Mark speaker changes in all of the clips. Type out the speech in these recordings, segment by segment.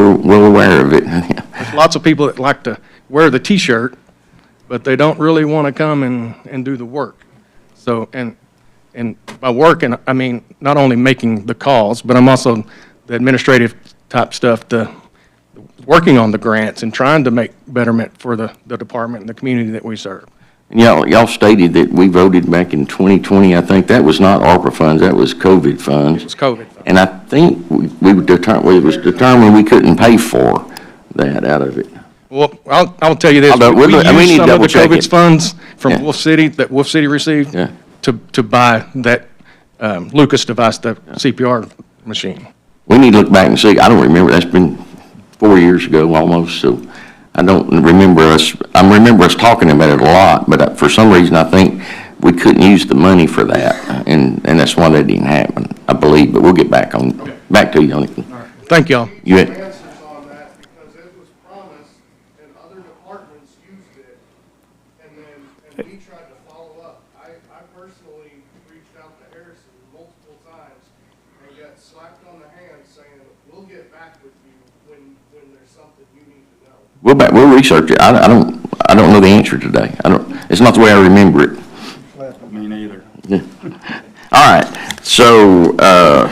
Speaker 1: we're well aware of it.
Speaker 2: Lots of people that like to wear the T-shirt, but they don't really want to come and, and do the work. So, and, and by working, I mean, not only making the calls, but I'm also the administrative type stuff, the, working on the grants and trying to make betterment for the, the department and the community that we serve.
Speaker 1: And y'all, y'all stated that we voted back in 2020, I think, that was not ARPA funds, that was COVID funds.
Speaker 2: It's COVID.
Speaker 1: And I think we we were determined, we was determined we couldn't pay for that out of it.
Speaker 2: Well, I'll, I'll tell you this,
Speaker 1: Although,
Speaker 2: we
Speaker 1: we- we need
Speaker 2: used
Speaker 1: to
Speaker 2: some of the
Speaker 1: double-check
Speaker 2: COVID's
Speaker 1: it.
Speaker 2: funds
Speaker 1: Yeah.
Speaker 2: from Wolf City, that Wolf City received,
Speaker 1: Yeah.
Speaker 2: to, to buy that um, Lucas device, the CPR machine.
Speaker 1: We need to look back and see, I don't remember, that's been four years ago almost, so I don't remember us, I remember us talking about it a lot, but I- for some reason, I think we couldn't use the money for that, and, and that's why that didn't happen, I believe, but we'll get back on, back to you on it.
Speaker 2: Thank y'all.
Speaker 1: You
Speaker 3: Answers
Speaker 1: had-
Speaker 3: on that because it was promised and other departments used it. And then, and we tried to follow up. I, I personally reached out to Harrison multiple times and got slapped on the hand saying, we'll get back with you when, when there's something you need to know.
Speaker 1: We'll back, we'll research it, I, I don't, I don't know the answer today, I don't, it's not the way I remember it.
Speaker 4: Me neither.
Speaker 1: All right, so, uh,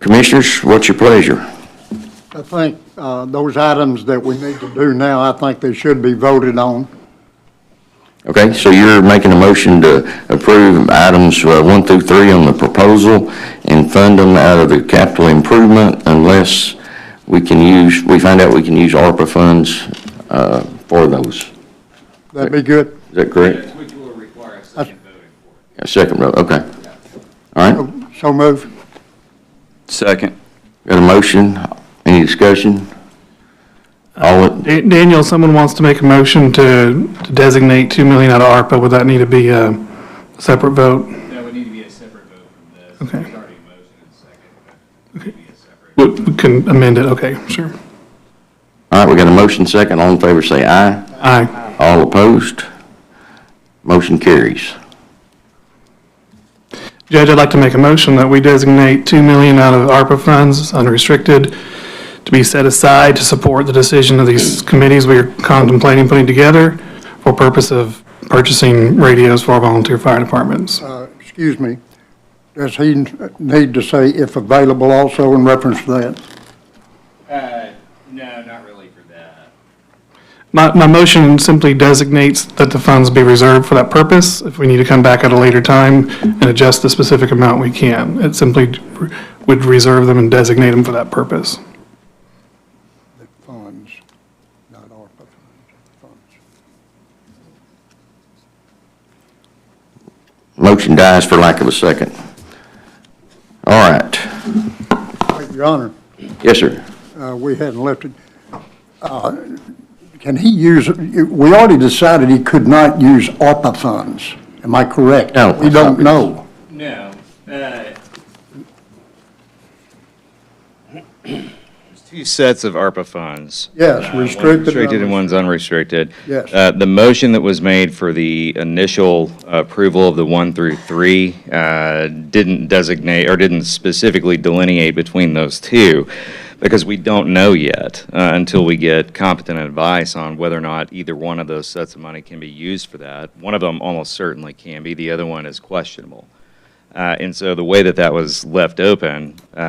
Speaker 1: Commissioners, what's your pleasure?
Speaker 5: I think uh, those items that we need to do now, I think they should be voted on.
Speaker 1: Okay, so you're making a motion to approve items uh, one through three on the proposal and fund them out of the capital improvement unless we can use, we find out we can use ARPA funds uh, for those. Is
Speaker 5: That'd be good.
Speaker 1: that correct?
Speaker 6: Which will require a second voting for it.
Speaker 1: Yeah, Second row, okay. All right,
Speaker 5: Oh, So move.
Speaker 4: Second.
Speaker 1: got a motion, any discussion? All, in-
Speaker 7: Da- Daniel, someone wants to make a motion to to designate 2 million out of ARPA. Would that need to be a separate vote?
Speaker 6: That would need to be a separate vote from this.
Speaker 7: Okay.
Speaker 6: There's already a motion and second, but it would be a separate.
Speaker 7: We we can amend it, okay, sure.
Speaker 1: all right, we got a motion second, all in favor say aye.
Speaker 7: Aye.
Speaker 1: All opposed? Motion carries.
Speaker 7: Judge, I'd like to make a motion that we designate 2 million out of ARPA funds, unrestricted, to be set aside to support the decision of these committees we are contemplating putting together for purpose of purchasing radios for our volunteer fire departments.
Speaker 5: Uh, Excuse me. Does he need to say if available also in reference to that?
Speaker 6: Uh, no, not really for that.
Speaker 7: My, my motion simply designates that the funds be reserved for that purpose. If we need to come back at a later time and adjust the specific amount, we can. It simply would reserve them and designate them for that purpose.
Speaker 5: The funds, not ARPA funds, funds.
Speaker 1: Motion dies for lack of a second. All right,
Speaker 5: Wait, Your Honor,
Speaker 1: yes, sir.
Speaker 5: uh, we hadn't left it. Uh, Can he use, we already decided he could not use ARPA funds. Am I correct?
Speaker 1: No.
Speaker 5: We don't know.
Speaker 6: No, uh. There's two sets of ARPA funds.
Speaker 5: Yes,
Speaker 6: Uh, one's
Speaker 5: restricted and
Speaker 6: Restricted
Speaker 5: unrestricted.
Speaker 6: and one's unrestricted.
Speaker 5: Yes.
Speaker 6: Uh, the motion that was made for the initial approval of the one through three, uh, didn't designate, or didn't specifically delineate between those two, because we don't know yet, uh, until we get competent advice on whether or not either one of those sets of money can be used for that. One of them almost certainly can be, the other one is questionable. Uh, And so the way that that was left open uh,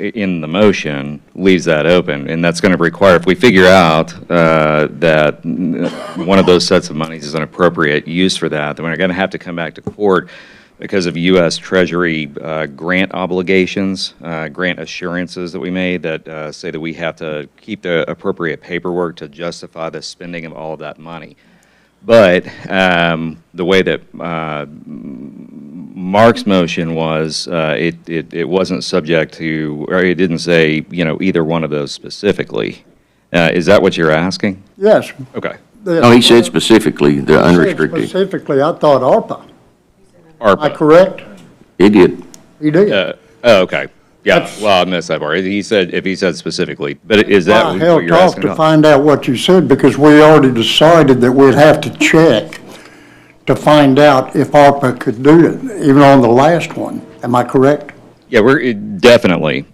Speaker 6: i- in the motion leaves that open, and that's going to require, if we figure out uh, that n- one of those sets of monies is an appropriate use for that, then we're going to have to come back to court because of U.S. Treasury uh, grant obligations, uh, grant assurances that we made that uh, say that we have to keep the appropriate paperwork to justify the spending of all of that money. But um, the way that uh, Mark's motion was, uh, it, it, it wasn't subject to, or it didn't say, you know, either one of those specifically. Uh, is that what you're asking?
Speaker 5: Yes.
Speaker 6: Okay.
Speaker 1: No, he said specifically the
Speaker 5: Said
Speaker 1: unrestricted.
Speaker 5: Specifically, I thought ARPA. Am I
Speaker 6: ARPA.
Speaker 5: correct?
Speaker 1: He did.
Speaker 5: He did.
Speaker 6: Uh, oh, okay. Yeah, well, I missed that part. He said, if he said specifically, but is that
Speaker 5: I
Speaker 6: what
Speaker 5: held
Speaker 6: you're
Speaker 5: off
Speaker 6: asking
Speaker 5: to
Speaker 6: about?
Speaker 5: find out what you said because we already decided that we'd have to check to find out if ARPA could do it, even on the last one. Am I correct?
Speaker 6: Yeah, we're, it- definitely.